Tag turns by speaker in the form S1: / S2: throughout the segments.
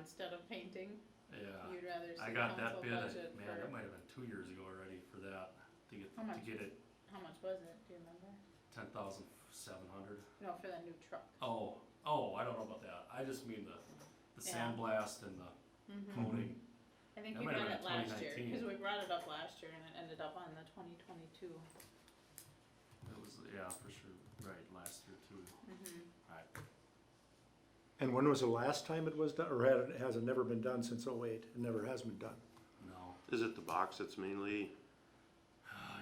S1: instead of painting?
S2: Yeah,
S1: You'd rather
S2: Uh, I
S1: see
S2: got
S1: council
S2: that bid, at-
S1: budget
S2: man, that
S1: for, Oh
S2: might have been two years ago already for that, to get,
S1: How
S2: to
S1: much?
S2: get it
S1: how much was it, do you remember?
S2: ten thousand seven hundred.
S1: No, for that new truck.
S2: Oh, oh, I don't know about that, I just mean the, the
S1: Yeah.
S2: sandblast and the
S1: Mm-hmm.
S2: coating,
S1: I think
S2: That
S1: we
S2: might have been
S1: got it last year,
S2: 2019.
S1: cause we brought it up last year and it ended up on the twenty twenty-two.
S2: it was, yeah, for sure, right, last year too.
S1: Mm-hmm.
S2: Right.
S3: And when was the last time it was done, or had, it- has it never been done since oh eight? It never has been done.
S2: No,
S4: Is it the box that's mainly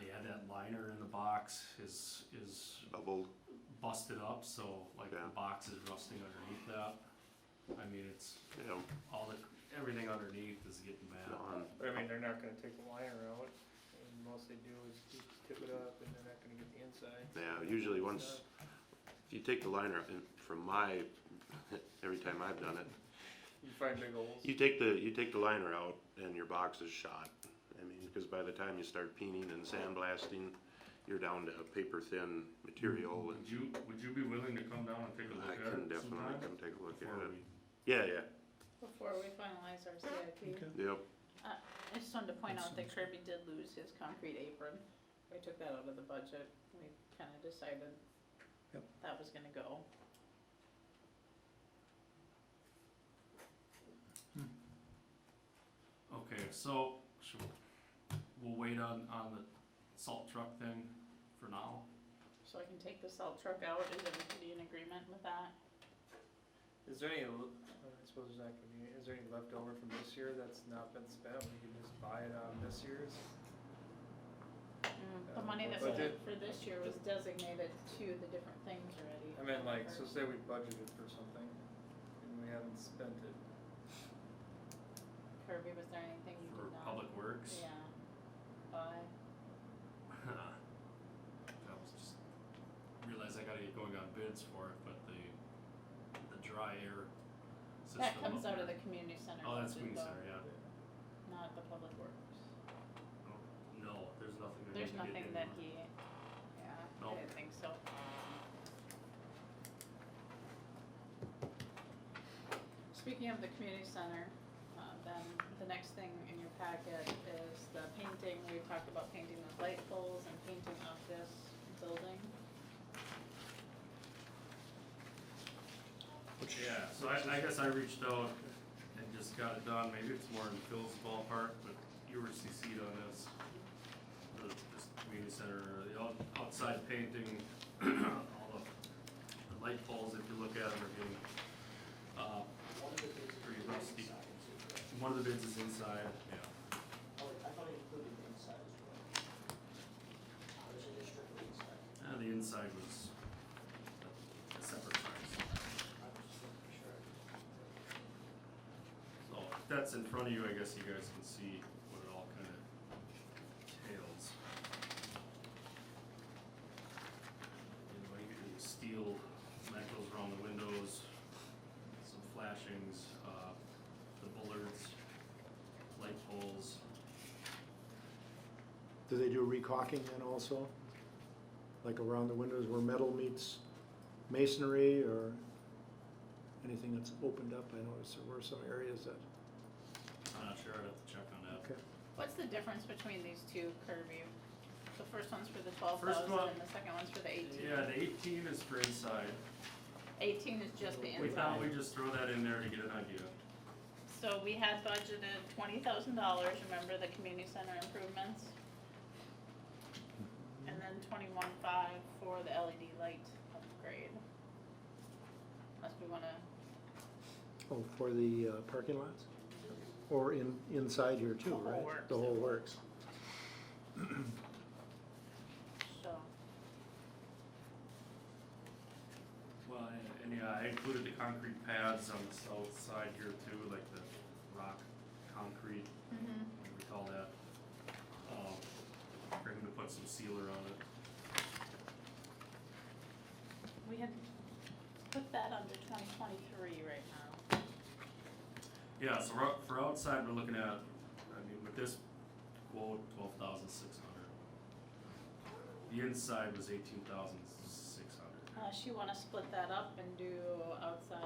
S2: yeah, that liner in the box is, is
S4: bubbled?
S2: busted up, so like
S4: Yeah.
S2: the box is rusting underneath that. I mean, it's
S4: You know,
S2: all the, everything underneath is getting bad.
S4: on,
S5: But I mean, they're not gonna take the liner out, and most they do is just tip it up, and they're not gonna get the inside.
S4: yeah, usually once, if you take the liner, up, and from my, every time I've done it,
S5: You find big holes.
S4: you take the, you take the liner out and your box is shot. I mean, because by the time you start peening and sandblasting, you're down to paper thin material and
S2: Would you, would you be willing to come down and take a look
S4: I
S2: at it?
S4: can definitely
S2: sometime?
S4: come take a look
S2: Before
S4: at it.
S2: we-
S4: Yeah, yeah,
S1: Before we finalize our CIP,
S4: yep,
S1: I just wanted to point out that Kirby did lose his concrete apron. We took that out of the budget, we kinda decided
S3: Yep.
S1: that was gonna go.
S2: Okay, so, sure, we'll wait on, on the salt truck thing for now.
S1: So I can take the salt truck out, is everybody in agreement with that?
S5: Is there any, l- I suppose there's not gonna be, is there any leftover from this year that's not been spent, we can just buy it out of this year's?
S1: The
S5: Uh,
S1: money that
S5: but
S1: was
S5: did-
S1: for this year was designated to the different things already.
S5: I mean, like, so say we budgeted for something, and we haven't spent it,
S1: Kirby, was there anything you
S2: For
S1: did not?
S2: Public Works.
S1: Yeah. Buy.
S2: I was just, realized I gotta get going on bids for it, but the, the dry air system.
S1: That comes
S2: up
S1: out of the
S2: there-
S1: community center.
S2: Oh, that's Queen
S1: budget,
S2: Center,
S1: though,
S2: yeah.
S1: Not the public works.
S2: No, there's nothing. I
S1: There's
S2: need to get
S1: nothing
S2: in.
S1: that he, yeah, I
S2: Nope.
S1: didn't think so. Speaking of the community center, uh, then the next thing in your packet is the painting, we talked about painting the light poles and painting of this building.
S2: Yeah, so I, I guess I reached out and just got it done, maybe it's more in Phil's ballpark, but you were CC'd on this. The, this community center, the out- outside painting, all the, the light poles, if you look at them, are getting, uh, pretty rusty. One of the bids is inside, yeah,
S6: Oh, wait, I thought it included the inside as well. Or is it just strictly inside?
S2: and Uh, the inside was a- a separate price.
S6: I was just making sure.
S2: So if that's in front of you, I guess you guys can see what it all kind of entails. You know, you get the steel mechanisms around the windows, some flashings, uh, the bullards, light poles.
S3: Do they do recocking then also? Like around the windows where metal meets masonry or anything that's opened up? I noticed there were some areas that,
S2: I'm not sure, I'd have to check on that.
S3: okay.
S1: What's the difference between these two, Kirby? The first one's for the twelve
S2: First
S1: thousand
S2: one-
S1: and the second one's for the eighteen.
S2: Yeah, the eighteen is for inside.
S1: Eighteen is just the inside.
S2: We thought we'd just throw that in there to get an idea.
S1: So we had budgeted twenty thousand dollars, remember the community center improvements? And then twenty-one five for the LED light upgrade. Unless we wanna,
S3: Oh, for the uh, parking lots? Or in, inside here
S1: The
S3: too,
S1: whole
S3: right?
S1: works.
S3: The whole works.
S1: so,
S2: Well, and- and yeah, I included the concrete pads on the south side here too, like the rock concrete, what we call that. Um, for him to put some sealer on it.
S1: we had put that under twenty twenty-three right now.
S2: Yeah, so we're out- for outside, we're looking at, I mean, with this quote, twelve thousand six hundred. The inside was eighteen thousand six hundred.
S1: Unless you wanna split that up and do outside